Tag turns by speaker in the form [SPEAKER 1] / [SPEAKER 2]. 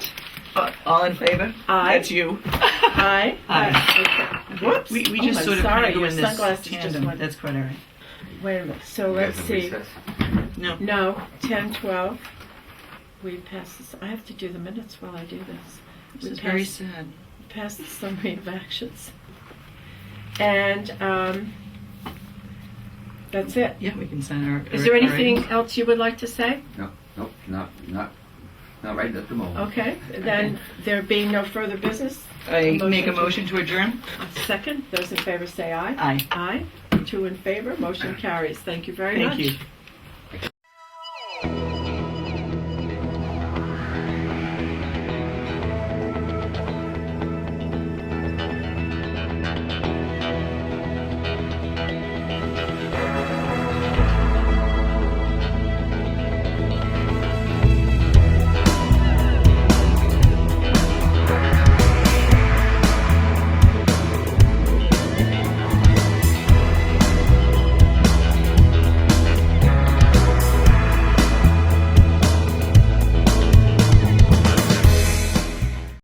[SPEAKER 1] Uh, all in favor?
[SPEAKER 2] Aye.
[SPEAKER 1] That's you.
[SPEAKER 2] Aye.
[SPEAKER 1] Aye.
[SPEAKER 2] Okay. Whoops.
[SPEAKER 1] We, we
[SPEAKER 2] Oh,
[SPEAKER 1] just
[SPEAKER 2] I'm
[SPEAKER 1] sort of
[SPEAKER 2] sorry,
[SPEAKER 1] kind of go
[SPEAKER 2] your
[SPEAKER 1] in this
[SPEAKER 2] sunglasses just
[SPEAKER 1] tandem.
[SPEAKER 2] went-
[SPEAKER 1] That's quite all right.
[SPEAKER 2] Wait a minute, so
[SPEAKER 3] You
[SPEAKER 2] let's
[SPEAKER 3] guys in
[SPEAKER 2] see.
[SPEAKER 3] recess?
[SPEAKER 1] No.
[SPEAKER 2] No, ten, twelve. We pass this, I have to do the minutes while I do this.
[SPEAKER 1] This
[SPEAKER 2] We
[SPEAKER 1] is very
[SPEAKER 2] pass,
[SPEAKER 1] sad.
[SPEAKER 2] pass the summary of actions. And, um, that's it.
[SPEAKER 1] Yeah, we can sign our.
[SPEAKER 2] Is there
[SPEAKER 1] our
[SPEAKER 2] anything
[SPEAKER 1] items.
[SPEAKER 2] else you would like to say?
[SPEAKER 3] No, no, not, not, not right at the moment.
[SPEAKER 2] Okay, then there being no further business,
[SPEAKER 1] I
[SPEAKER 2] Motion
[SPEAKER 1] make a
[SPEAKER 2] to-
[SPEAKER 1] motion to adjourn?
[SPEAKER 2] second, those in favor say aye.
[SPEAKER 1] Aye.
[SPEAKER 2] Aye, two in favor, motion carries. Thank you very much.
[SPEAKER 1] Thank you.